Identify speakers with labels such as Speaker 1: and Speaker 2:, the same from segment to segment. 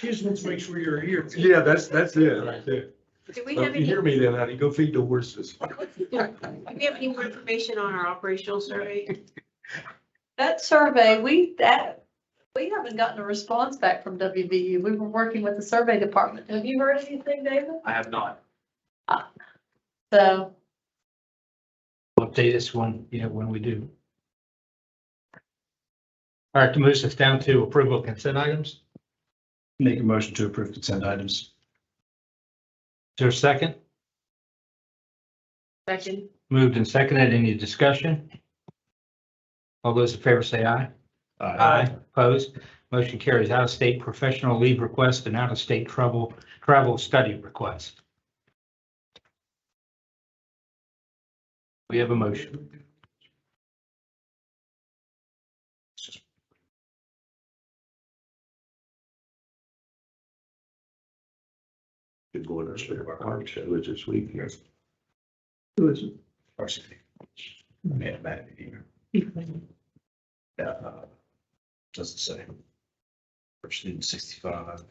Speaker 1: Kids, make sure you're here.
Speaker 2: Yeah, that's, that's it right there.
Speaker 3: Do we
Speaker 2: But
Speaker 3: have
Speaker 2: if you
Speaker 3: any,
Speaker 2: hear me then, honey, go feed the horses.
Speaker 3: do we have any more information on our operational survey?
Speaker 4: That survey, we, that, we haven't gotten a response back from WVU. We were working with the survey department. Have you heard anything, David?
Speaker 5: I have not.
Speaker 4: So,
Speaker 6: update this one, you know, when we do. All right, to move us down to approval of consent items. Is
Speaker 5: Make a motion to approve consent items.
Speaker 6: there a second?
Speaker 3: Second.
Speaker 6: Moved and seconded. Any discussion? All those in favor say aye. Opposed? Motion carries out of state professional leave request and out of state travel, travel study request. We have a motion.
Speaker 2: Good going to sleep. Our show is this week. Yes.
Speaker 5: Varsity. Man, man, here. Uh, Doesn't say. Varsity sixty-five.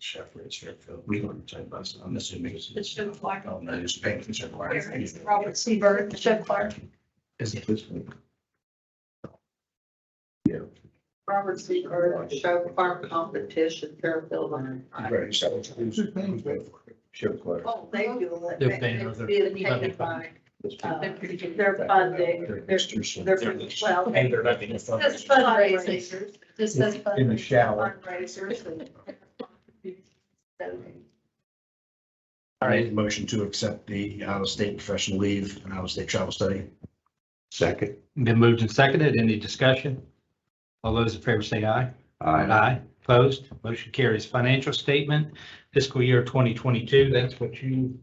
Speaker 5: Chef Red Fairfield, we don't type us, I'm assuming. it's-
Speaker 4: The chef flag.
Speaker 5: Oh, no, it's paint, it's a flag.
Speaker 4: Robert Seabird, the chef clerk,
Speaker 5: Is it this one? Yeah.
Speaker 4: Robert Seabird, show farm competition, Fairfield.
Speaker 5: Right, so it's- Sheriff Clark.
Speaker 4: Oh, they do it.
Speaker 6: They're paying other-
Speaker 4: They're taken by, uh, They're funding, they're, they're, from- well,
Speaker 5: And they're not being
Speaker 4: just
Speaker 5: funded.
Speaker 4: fundraisers, just as fundraisers.
Speaker 5: In the shower.
Speaker 4: Fundraisers. and- So,
Speaker 5: I made a motion to accept the Iowa State professional leave and Iowa State travel study.
Speaker 2: Second.
Speaker 6: Been moved and seconded. Any discussion? All those in favor say aye.
Speaker 2: Aye.
Speaker 6: Aye. Opposed? Motion carries. Financial statement, fiscal year 2022, that's what you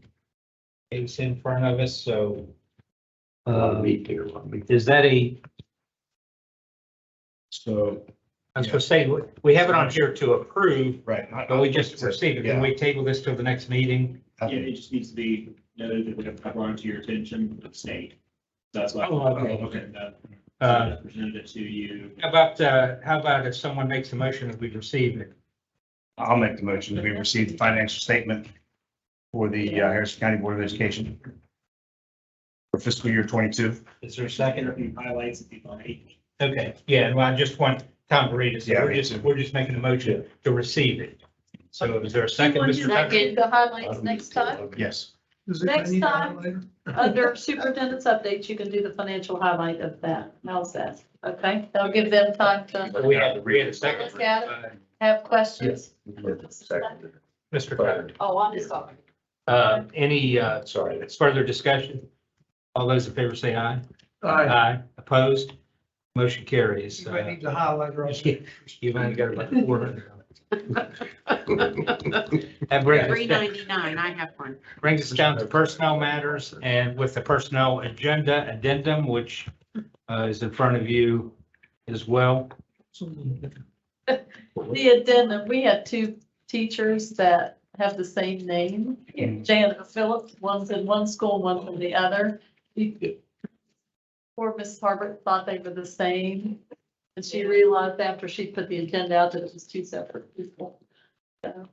Speaker 6: gave us in front of us, so. uh,
Speaker 2: Meet there, I'll meet.
Speaker 6: Is that a,
Speaker 5: So,
Speaker 6: I was going to say, we have it on here to approve,
Speaker 5: right. not-
Speaker 6: but we just received it. Can we table this till the next meeting?
Speaker 5: Yeah.
Speaker 7: Yeah, it just needs to be noted that we have brought it to your attention at state. That's why.
Speaker 6: Oh, okay.
Speaker 7: Uh,
Speaker 6: Uh,
Speaker 7: I Presented it to you.
Speaker 6: How about, uh, how about if someone makes a motion that we receive it?
Speaker 5: I'll make the motion that we receive the financial statement for the uh, Harrison County Board of Education for fiscal year twenty-two.
Speaker 6: Is there a second?
Speaker 7: Second, highlights if you like.
Speaker 6: Okay, yeah, well, I just want Tom to read it. So
Speaker 5: Yeah,
Speaker 6: we're
Speaker 5: me
Speaker 6: just,
Speaker 5: too.
Speaker 6: we're just making a motion to receive it. So is there a second,
Speaker 4: One
Speaker 6: Mr. Tucker?
Speaker 4: second, the highlights next time.
Speaker 5: Yes.
Speaker 4: Next time. Under superintendent's updates, you can do the financial highlight of that. How's that? Okay, that'll give them time to
Speaker 6: We had, we had a second.
Speaker 4: Look at have questions.
Speaker 5: Second.
Speaker 6: Mr. Tucker,
Speaker 4: Oh, I'm sorry.
Speaker 6: uh, any, uh,
Speaker 5: Sorry.
Speaker 6: further discussion? All those in favor say aye.
Speaker 1: Aye.
Speaker 6: Opposed? Motion carries.
Speaker 1: You might need to highlight her.
Speaker 6: You've only got about four hundred. That brings us,
Speaker 3: Three
Speaker 6: down-
Speaker 3: ninety-nine, I have one.
Speaker 6: brings us down to personnel matters and with the personnel agenda addendum, which uh, is in front of you as well.
Speaker 4: The addendum, we had two teachers that have the same name,
Speaker 6: Mm-hmm.
Speaker 4: Janet Phillips, one's in one school, one's in the other. Poor Mrs. Harbert thought they were the same, and she realized after she put the agenda out that it was two separate people. So,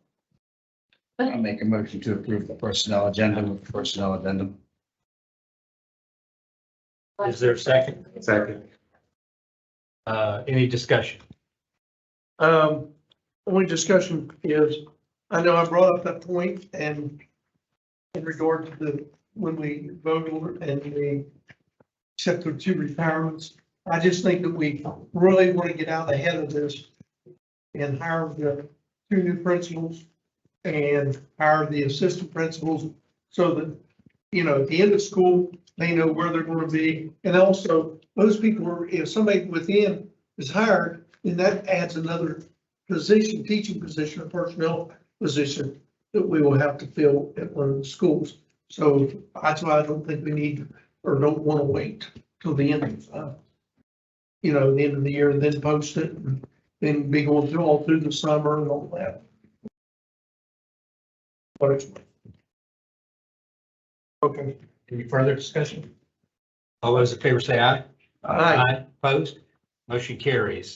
Speaker 5: I'll make a motion to approve the personnel agenda with personnel addendum.
Speaker 6: Is there a second?
Speaker 2: Second.
Speaker 6: Uh, Any discussion?
Speaker 1: Um, only discussion is, I know I brought up that point and in regard to the, when we voted on it and we accepted two retirements, I just think that we really want to get out ahead of this and hire the two new principals and hire the assistant principals so that, you know, at the end of school, they know where they're going to be. And also, those people, are- if somebody within is hired, and that adds another position, teaching position, a personnel position that we will have to fill at one of the schools. So that's why I don't think we need or don't want to wait till the end of, uh, you know, the end of the year and then post it and then be going through all through the summer and all that. But it's. Okay.
Speaker 6: Any further discussion? All those in favor say aye.
Speaker 1: Aye.
Speaker 6: Opposed? Motion carries.